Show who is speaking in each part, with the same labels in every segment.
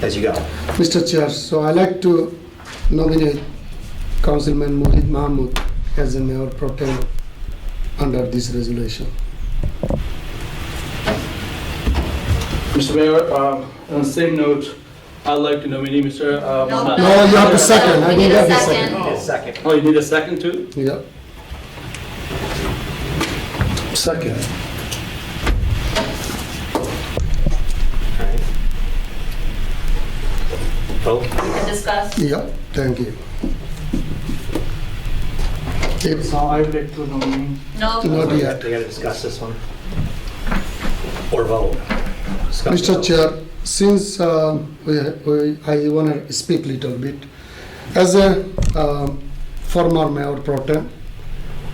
Speaker 1: as you go.
Speaker 2: Mr. Chair, so I'd like to nominate Councilman Mohit Mahmood as the mayor pro tem under this resolution.
Speaker 3: Mr. Mayor, uh, on the same note, I'd like to nominate Mr. uh,
Speaker 4: No.
Speaker 3: Mohammed.
Speaker 2: No, you have to second, I
Speaker 4: We need
Speaker 2: need
Speaker 4: a
Speaker 2: have to
Speaker 4: second.
Speaker 2: second.
Speaker 1: Need a second.
Speaker 3: Oh, you need a second too?
Speaker 2: Yeah,
Speaker 5: Second.
Speaker 1: Alright. Vote.
Speaker 2: Oh.
Speaker 4: and discuss.
Speaker 2: yeah, thank you. It's
Speaker 3: So I would like to nominate.
Speaker 4: No,
Speaker 2: not
Speaker 1: We
Speaker 2: yet.
Speaker 1: gotta- We gotta discuss this one. Or vote. Discuss it.
Speaker 2: Mr. Chair, since uh, we, we, I want to speak little bit, as a um, former mayor pro tem,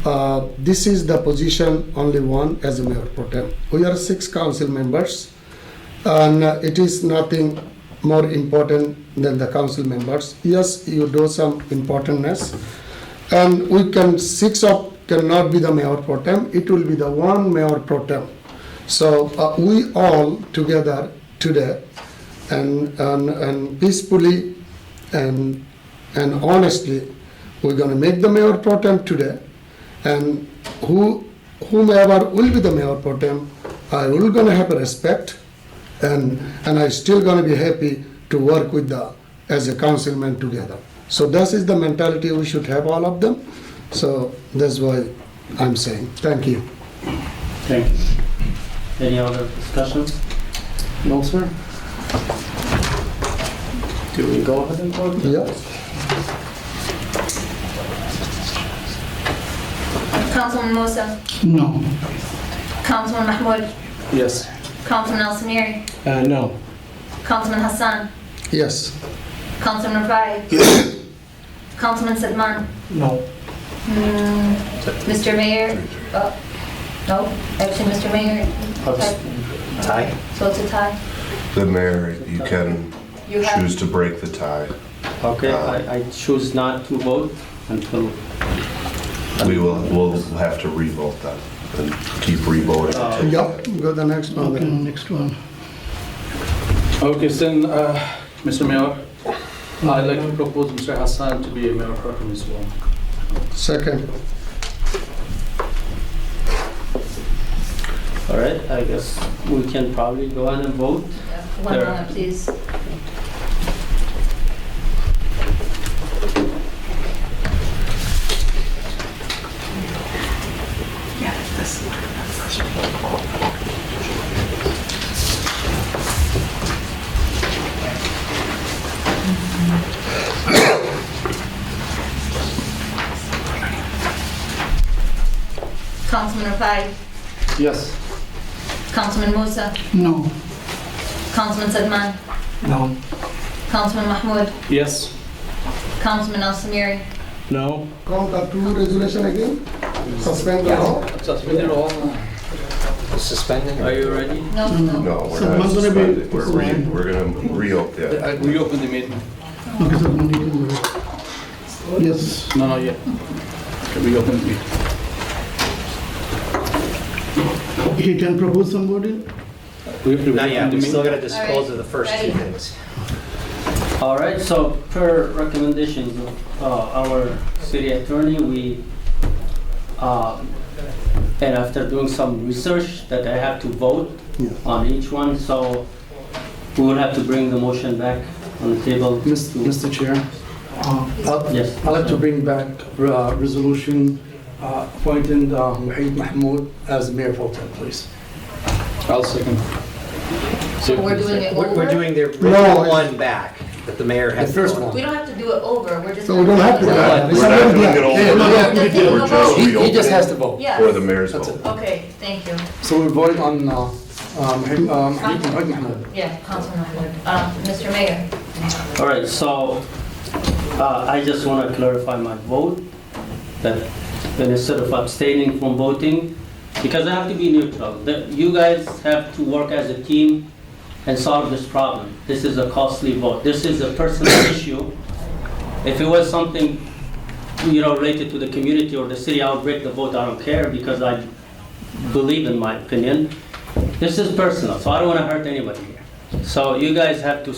Speaker 2: uh, this is the position only one as a mayor pro tem. We are six council members, and uh, it is nothing more important than the council members. Yes, you do some importantness, and we can six of cannot be the mayor pro tem. It will be the one mayor pro tem. So uh, we all together today, and, and and peacefully, and and honestly, we're going to make the mayor pro tem today, and who whomever will be the mayor pro tem, I will going to have a respect, and and I still going to be happy to work with the as a councilman together. So this is the mentality we should have all of them. So that's why I'm saying thank you.
Speaker 6: Thank you. Any other discussions? No, sir? Do we go ahead and vote?
Speaker 2: Yeah.
Speaker 4: Councilman Musa,
Speaker 6: No.
Speaker 4: Councilman Mahmoud,
Speaker 6: Yes.
Speaker 4: Councilman Al Samiri,
Speaker 6: Uh, no.
Speaker 4: Councilman Hassan,
Speaker 2: Yes.
Speaker 4: Councilman Rafai, Councilman Sedman,
Speaker 6: No.
Speaker 4: mm, Mr. Mayor, oh, no, actually, Mr. Mayor,
Speaker 6: Abs-
Speaker 1: Tie?
Speaker 4: so it's a tie.
Speaker 7: The mayor, you can
Speaker 4: You have,
Speaker 7: choose to break the tie.
Speaker 6: Okay, I, I choose not to vote until,
Speaker 7: We will, we'll have to revote that and keep revoting. until-
Speaker 2: Yep, go the next one then.
Speaker 8: Next one.
Speaker 3: Okay, so then, uh, Mr. Mayor, I'd like to propose Mr. Hassan to be a mayor pro tem as well.
Speaker 2: Second,
Speaker 6: all right, I guess we can probably go ahead and vote.
Speaker 4: one
Speaker 3: There.
Speaker 4: moment, please. Councilman Rafai,
Speaker 3: Yes.
Speaker 4: Councilman Musa,
Speaker 8: No.
Speaker 4: Councilman Sedman,
Speaker 6: No.
Speaker 4: Councilman Mahmoud,
Speaker 3: Yes.
Speaker 4: Councilman Al Samiri,
Speaker 6: No.
Speaker 2: count the two resolution again, suspend the law.
Speaker 3: Suspend it all.
Speaker 1: Suspending?
Speaker 3: Are you ready?
Speaker 4: no, no.
Speaker 7: No, we're
Speaker 8: So
Speaker 7: not
Speaker 8: one's gonna be-
Speaker 7: suspending, we're re, we're gonna reopen,
Speaker 3: I
Speaker 7: yeah.
Speaker 3: Reopen the meeting.
Speaker 8: Okay, sir, we need to do it. Yes.
Speaker 3: No, not yet. Okay, Reopen the meeting.
Speaker 8: He can propose somebody?
Speaker 3: We have to
Speaker 1: Not
Speaker 3: reopen
Speaker 1: yet,
Speaker 3: the
Speaker 1: we still
Speaker 3: meeting.
Speaker 1: gotta dispose of the first two
Speaker 4: Alright.
Speaker 1: things.
Speaker 6: All right, so per recommendations of uh, our city attorney, we, uh, and after doing some research, that I have to vote
Speaker 2: Yeah.
Speaker 6: on each one, so we will have to bring the motion back on the table. to-
Speaker 8: Mr. Chair, uh,
Speaker 5: I'd
Speaker 6: Yes.
Speaker 5: I'd like to bring back uh, resolution uh, appointing uh, Wahid Mahmoud as mayor pro tem, please.
Speaker 3: I'll second. So-
Speaker 4: We're doing it
Speaker 1: We're, we're
Speaker 4: over.
Speaker 1: doing the
Speaker 2: No,
Speaker 1: original
Speaker 2: it's-
Speaker 1: one back, that the mayor has.
Speaker 5: The first
Speaker 1: voted.
Speaker 5: one.
Speaker 4: We don't have to do it over, we're just.
Speaker 2: So we don't have to. do that.
Speaker 7: We're not doing it all.
Speaker 5: Yeah, no,
Speaker 7: We're
Speaker 5: no,
Speaker 4: The thing
Speaker 7: we're just
Speaker 4: about-
Speaker 5: He he just has to vote.
Speaker 4: Yes.
Speaker 7: Or the mayor's vote.
Speaker 4: Okay, thank you.
Speaker 5: So we're voting on uh, um, Wahid um, Wahid Mahmoud.
Speaker 4: Yeah, Councilman Mahmoud. Uh, Mr. Mayor,
Speaker 6: All right, so uh, I just want to clarify my vote, that that instead of abstaining from voting, because I have to be neutral, that you guys have to work as a team and solve this problem. This is a costly vote, this is a personal issue. If it was something, you know, related to the community or the city, I would break the vote, I don't care, because I believe in my opinion. This is personal, so I don't want to hurt anybody here. So you guys have to